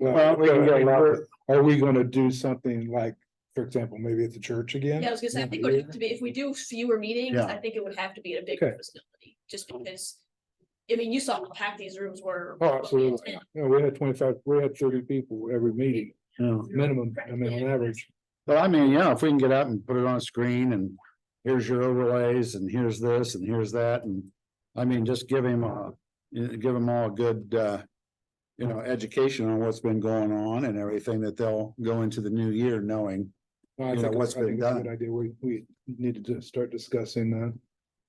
Well, Well, we can I get mean, around we're- it. Are we gonna do something like, for example, maybe at the church again? Yeah, I was gonna say, I think it would have to be, if we do fewer meetings, I think it would have to be at a bigger Okay. facility, just because. I mean, you saw how packed these rooms were. Oh, absolutely. Yeah, we had twenty-five, we had thirty people every meeting, Yeah. minimum, I mean, on average. But I mean, yeah, if we can get out and put it on a screen and here's your overlays and here's this and here's that and. I mean, just give him a, give them all a good, uh, you know, education on what's been going on and everything that they'll go into the new year knowing. I You know, think- what's I think been it's a good done. Idea, we, we need to just start discussing uh,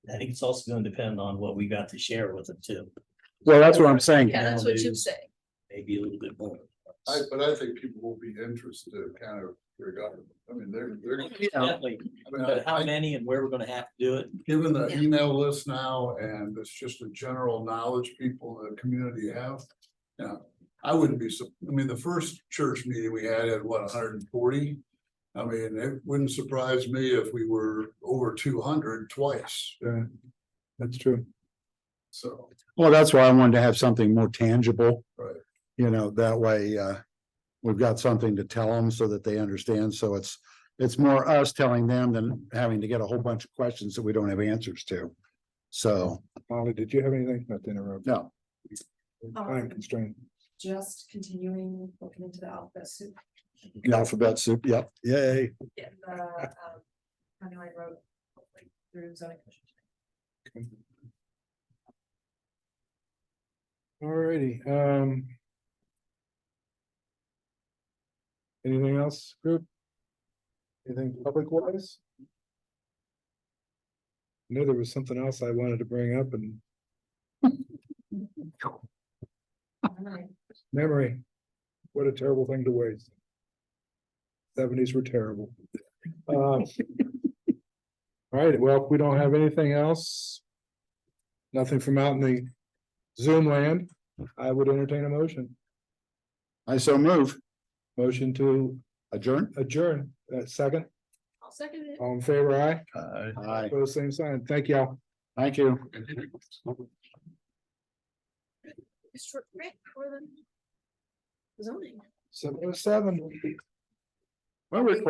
that. I think it's also gonna depend on what we got to share with them too, Well, that's what I'm saying. Yeah, that's what you say. maybe a little bit more. I, but I think people will be interested kind of regardless. I mean, they're, they're, I Yeah, Definitely, mean, but I- how I- many and where we're gonna have to do it, given the Yeah. email list now and it's just a general knowledge people in the community have. Yeah, I wouldn't be, sup- I mean, the first church meeting we had at what, hundred and forty? I mean, it wouldn't surprise me if we were over two hundred twice, Yeah, that's true. so. Well, that's why I wanted to have something more tangible. Right. You know, that way, uh, we've got something to tell them so that they understand. So it's, it's more us telling them than having to get a whole bunch of questions that we don't have answers to. So, Molly, did you have anything? Not to interrupt. no, I'm constrained. just continuing looking into the alphabet soup. the alphabet soup, yep, yay. Yeah. The, um, County Line Road, hopefully, through zoning commission. Alrighty, um. Anything else, group? Anything public wise? I Knew there was something else I wanted to bring up and Alright. memory. What a terrible thing to waste. Seventies were terrible. Um, Alright, well, if we don't have anything else. Nothing from out in the Zoom land, I would entertain a motion. I so move, Motion to adjourn. adjourn, uh, second, I'll second it. all in favor, aye, Aye, pose same sign, thank y'all. thank you. Mr. Rick for the zoning. Seven oh seven. Well, we're